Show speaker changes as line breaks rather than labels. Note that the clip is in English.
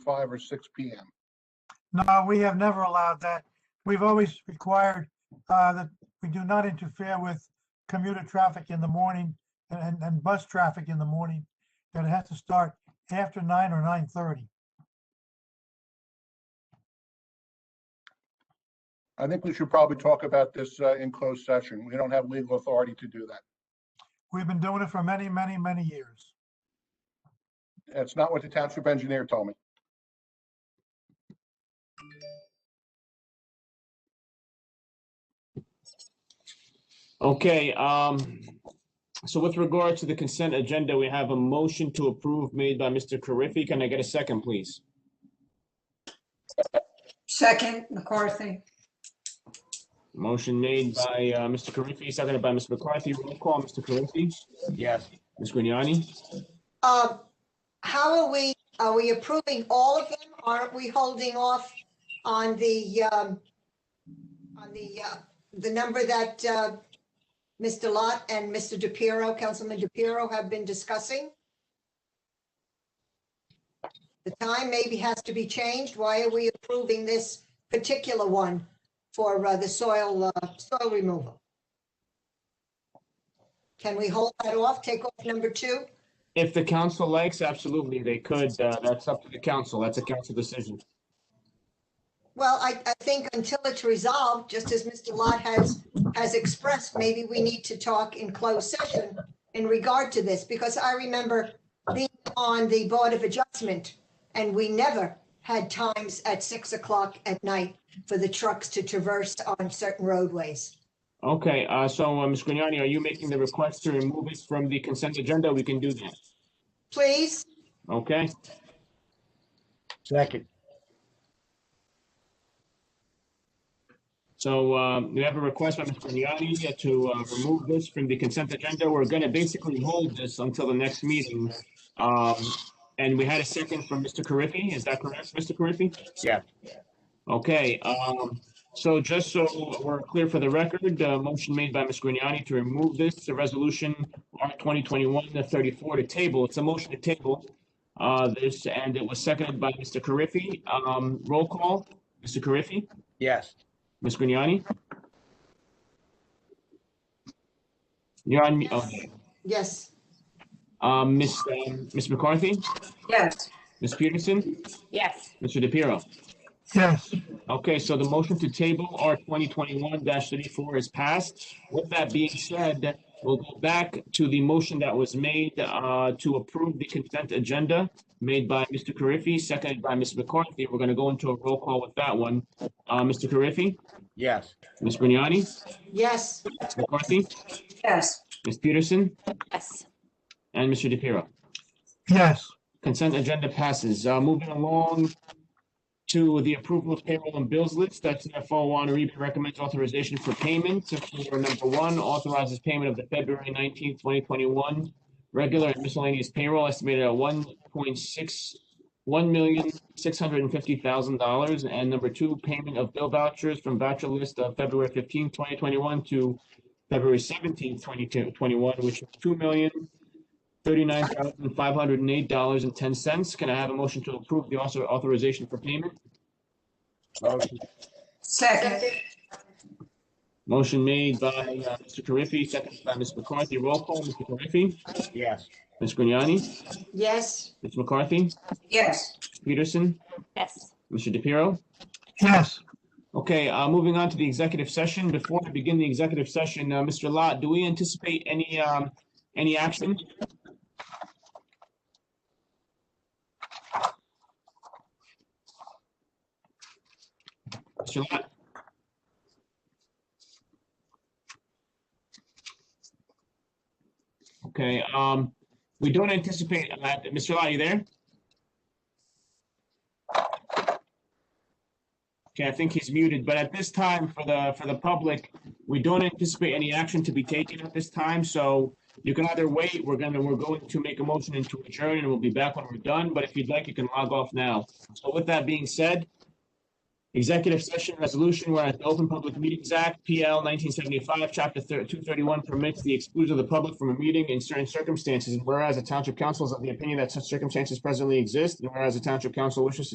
five or six P M.
No, we have never allowed that. We've always required uh, that we do not interfere with commuter traffic in the morning and- and, and bus traffic in the morning, that it has to start after nine or nine thirty.
I think we should probably talk about this uh, in closed session. We don't have legal authority to do that.
We've been doing it for many, many, many years.
That's not what the township engineer told me.
Okay, um, so with regard to the consent agenda, we have a motion to approve made by Mr. Carriffy. Can I get a second, please?
Second, McCarthy.
Motion made by, uh, Mr. Carriffy, seconded by Ms. McCarthy. Roll call, Mr. Carriffy? Yes. Ms. Grignani?
Um, How are we, are we approving all of them? Aren't we holding off on the, um, on the, uh, the number that uh, Mr. Lot and Mr. DePiero, Councilman DePiero have been discussing? The time maybe has to be changed. Why are we approving this particular one for uh, the soil, uh, soil removal? Can we hold that off, take off number two?
If the council likes, absolutely, they could. Uh, that's up to the council. That's a council decision.
Well, I, I think until it's resolved, just as Mr. Lot has, has expressed, maybe we need to talk in closed session in regard to this, because I remember being on the Board of Adjustment, and we never had times at six o'clock at night for the trucks to traverse on certain roadways.
Okay, uh, so, uh, Ms. Grignani, are you making the request to remove it from the consent agenda? We can do that.
Please,
Okay,
Second,
so, um, we have a request by Ms. Grignani to, uh, remove this from the consent agenda. We're gonna basically hold this until the next meeting. Um, and we had a second from Mr. Carriffy. Is that correct, Mr. Carriffy?
Yeah.
Okay, um, so just so we're clear for the record, uh, motion made by Ms. Grignani to remove this, the resolution R twenty twenty-one thirty-four to table. It's a motion to table. Uh, this, and it was seconded by Mr. Carriffy. Um, roll call, Mr. Carriffy?
yes.
Ms. Grignani? You're on, oh,
yes,
um, Ms., um, Ms. McCarthy,
Yes.
Ms. Peterson,
Yes.
Mr. DePiero.
Yes,
Okay, so the motion to table R twenty twenty-one thirty-four is passed. With that being said, we'll go back to the motion that was made, uh, to approve the consent agenda made by Mr. Carriffy, seconded by Ms. McCarthy. We're gonna go into a roll call with that one. Uh, Mr. Carriffy,
Yes,
Ms. Grignani,
yes,
Ms. McCarthy,
Yes.
Ms. Peterson,
Yes.
And Mr. DePiero.
yes,
Consent agenda passes. Uh, moving along to the approval of payroll and bills list. That's FO one. Rebe recommends authorization for payment. So For number one, authorizes payment of the February nineteenth, twenty twenty-one regular and miscellaneous payroll estimated at one point six, one million, six hundred and fifty thousand dollars. And number two, payment of bill vouchers from voucher list of February fifteenth, twenty twenty-one to February seventeenth, twenty twenty-one, which is two million, Thirty-nine thousand, five hundred and eight dollars and ten cents. Can I have a motion to approve the author- authorization for payment?
motion,
Second.
Motion made by uh, Mr. Carriffy, seconded by Ms. McCarthy. Roll call, Mr. Carriffy,
yes.
Ms. Grignani,
yes,
Ms. McCarthy,
Yes.
Peterson,
Yes.
Mr. DePiero.
yes.
Okay, uh, moving on to the executive session. Before I begin the executive session, uh, Mr. Lot, do we anticipate any, um, any action? Mr. Lot? Okay, um, we don't anticipate, uh, Mr. Lot, you there? Okay, I think he's muted, but at this time, for the, for the public, we don't anticipate any action to be taken at this time, so you can either wait, we're gonna, we're going to make a motion into adjourn, and we'll be back when we're done, but if you'd like, you can log off now. So with that being said, executive session resolution, whereas the Open Public Meetings Act, PL nineteen seventy-five, chapter two thirty-one permits the exclusion of the public from a meeting in certain circumstances, and whereas the township council is of the opinion that such circumstances presently exist, and whereas the township council wishes to